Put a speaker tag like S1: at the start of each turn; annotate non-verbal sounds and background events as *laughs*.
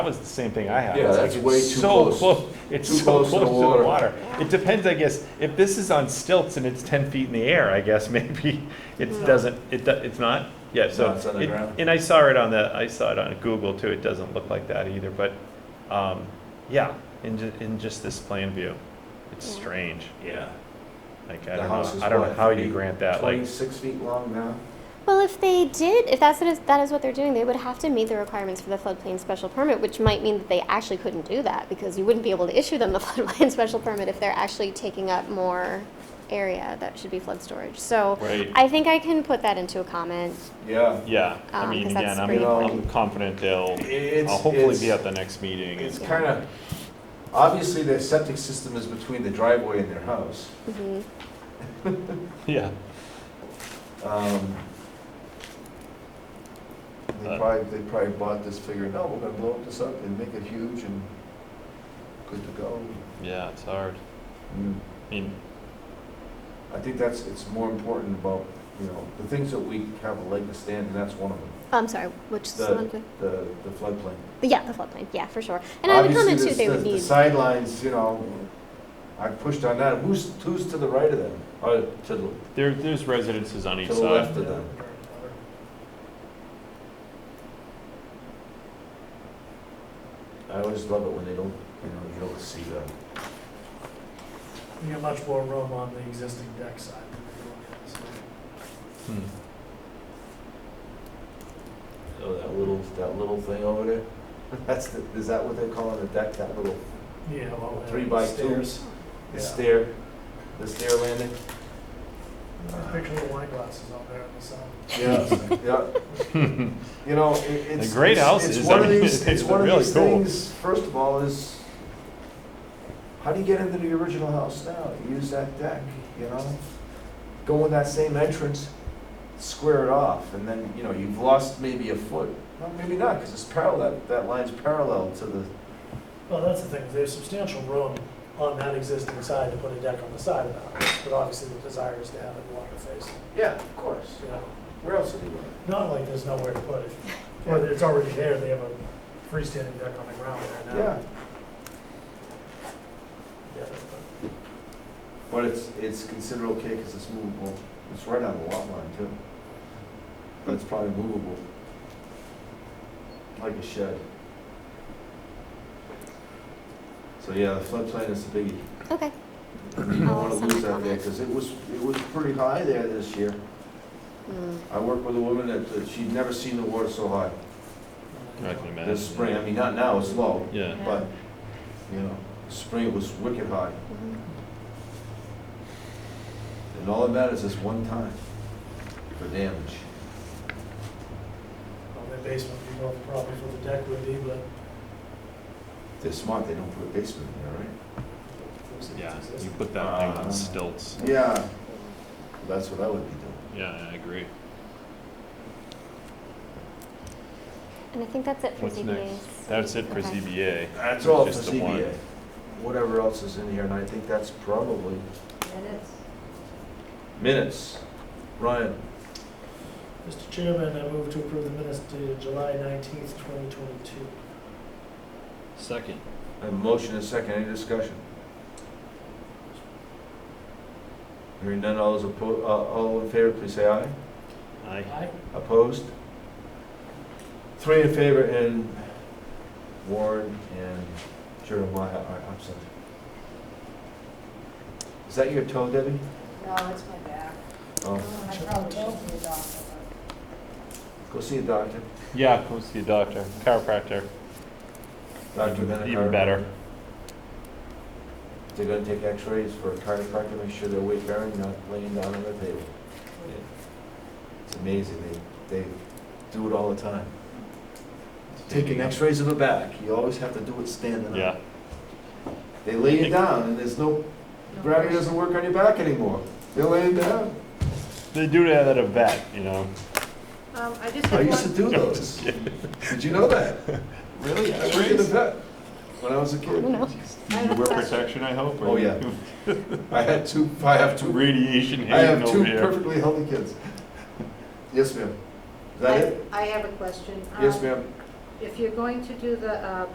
S1: That was the same thing I had. It's
S2: Yeah,
S1: like,
S2: that's
S1: it's
S2: way too
S1: so
S2: close.
S1: It's
S2: Too
S1: so
S2: close
S1: close
S2: to the
S1: to the
S2: water.
S1: water. It depends, I guess, if this is on stilts and it's ten feet in the air, I guess, *laughs* maybe it doesn't, it, do- it's not? Yeah, so.
S2: No, it's on the
S1: it-
S2: ground.
S1: And I saw it on the, I saw it on Google too, it doesn't look like that either, but, um, yeah, in ju- in just this plan view. It's
S3: Yeah.
S1: strange,
S2: Yeah.
S1: like, I
S2: The
S1: don't
S2: house is
S1: know, I don't know
S2: what,
S1: how you
S2: eight-
S1: grant that, like,
S2: Twenty-six feet long now?
S3: Well, if they did, if that's what is, that is what they're doing, they would have to meet the requirements for the floodplain special permit, which might mean that they actually couldn't do that because you wouldn't be able to issue them the *laughs* floodplain special permit if they're actually taking up more area that should be flood storage. So
S1: right?
S3: I think I can put that into a comment.
S2: Yeah.
S1: Yeah, I
S3: Um,
S1: mean,
S3: 'cause
S1: again,
S3: that's
S1: I'm,
S3: pretty
S1: I'm
S2: important.
S1: confident they'll,
S2: It's-
S1: I'll hopefully
S2: it's-
S1: be at the next meeting.
S2: It's
S1: and-
S2: kind of, obviously their septic system is between the driveway and their house.
S3: Mhm.
S1: *laughs* Yeah.
S2: Um, They
S1: Uh.
S2: probably, they probably bought this figuring, no, we're gonna blow this up and make it huge and good to go.
S1: Yeah, it's hard.
S2: Mm.
S1: I mean,
S2: I think that's, it's more important about, you know, the things that we have a leg to stand, and that's one of them,
S3: I'm sorry, which is the
S2: The-
S3: one? thing?
S2: the, the floodplain.
S3: Yeah, the floodplain, yeah, for sure. And I would
S2: Obviously,
S3: comment
S2: the-
S3: too, they
S2: the-
S3: would
S2: The
S3: need,
S2: sidelines, you know, I pushed on that, who's, who's to the right of them, or Uh, to the,
S1: there, there's residences on each
S2: to the
S1: side.
S2: left of them? I always love it when they don't, you know, you don't see them.
S4: You have much more room on the existing deck side than you do on the other side.
S1: Hmm.
S2: Oh, that little, that little thing over there? *laughs* That's the, is that what they call it, a deck, that little
S4: Yeah, well. uh,
S2: Three by two.
S4: stairs.
S2: the
S4: Yeah.
S2: stair, the stair landing?
S4: Picture the wine glasses out there on the side.
S2: Yeah, *laughs* yeah. You know, it- it's.
S1: They're great
S2: it's-
S1: houses.
S2: It's one
S1: I
S2: of
S1: mean, *laughs*
S2: these, it's
S1: they're
S2: one of
S1: really
S2: these
S1: cool.
S2: things, first of all, is how do you get into the original house now? Use that deck, you know? Go in that same entrance, square it off, and then, you know, you've lost maybe a foot. Well, maybe not, because it's parallel, that line's parallel to the,
S4: Well, that's the thing, there's substantial room on that existing side to put a deck on the side of the house, but obviously the desire is to have it water facing,
S2: yeah, of course.
S4: you know?
S2: Where else would you want it?
S4: Not like there's nowhere to put it, or that it's already there, they have a freestanding deck on the ground there now.
S2: Yeah,
S4: Yeah.
S2: but it's, it's considered okay because it's movable. It's right on the lot line too. But it's probably movable. Like a shed. So yeah, the floodplain is the biggie.
S3: okay,
S2: You don't wanna
S3: I'll send
S2: lose
S3: my
S2: that there
S3: comments.
S2: because it was, it was pretty high there this year.
S3: Mm,
S2: I worked with a woman that, that she'd never seen the water so high
S4: uh,
S1: I can imagine.
S2: this spring. I mean, not now, it's low,
S1: Yeah.
S2: but, you know, spring it was wicked high.
S3: mhm.
S2: And all that matters is one time for damage.
S4: On the basement, you know, the problems with the deck would be, but.
S2: They're smart, they don't put a basement in there, right?
S4: it's-
S1: Yeah,
S4: it's
S1: you
S4: existing.
S1: put that thing
S2: Uh,
S1: on stilts.
S2: Yeah. That's what I would be doing.
S1: Yeah, I agree.
S3: And I think that's it for
S1: What's
S3: ZBAs.
S1: next? That's it for
S3: Okay.
S1: ZBA.
S2: That's all for
S1: Just the one.
S2: CBA. Whatever else is in here, and I think that's probably minutes. Ryan,
S4: Mr. Chairman, I move to approve the minutes dated July nineteenth, twenty twenty-two.
S1: Second.
S2: I have a motion and a second, any discussion? Hearing none, all those oppo, uh, all in favor, please say aye.
S1: Aye.
S4: Aye.
S2: Opposed? Three in favor and Warren and Jeremiah are absent. Is that your toe, Debbie?
S5: No, it's my back.
S2: Oh,
S5: I probably should see a doctor.
S2: go see a doctor.
S1: Yeah, go see a doctor, chiropractor.
S2: Doctor
S1: Even-
S2: then a
S1: Even better.
S2: chiropractor. They're gonna take x-rays for a chiropractor, make sure they're weight bearing, not laying down on the table. It's amazing, they, they do it all the time. Taking x-rays of the back, you always have to do it standing up.
S1: Yeah,
S2: They lay you down and there's no
S5: No
S2: Gravity
S5: worries.
S2: doesn't work on your back anymore. They lay it down.
S1: they do that at a vet, you know.
S5: Um, I just
S2: I
S5: have
S2: used to
S5: one,
S2: do those. Did you know that? Really? I worked at the vet when I was a kid.
S3: No.
S5: I
S1: You
S5: have a
S1: wear
S5: question.
S1: protection, I hope? or-
S2: Oh, yeah. I had two, I have
S1: *laughs*
S2: two,
S1: Radiation
S2: I have
S1: hanging
S2: two
S1: over here.
S2: perfectly healthy kids. Yes, ma'am. Is that
S5: I
S2: it?
S5: I have a question.
S2: Yes,
S5: Um,
S2: ma'am.
S5: If you're going to do the uh,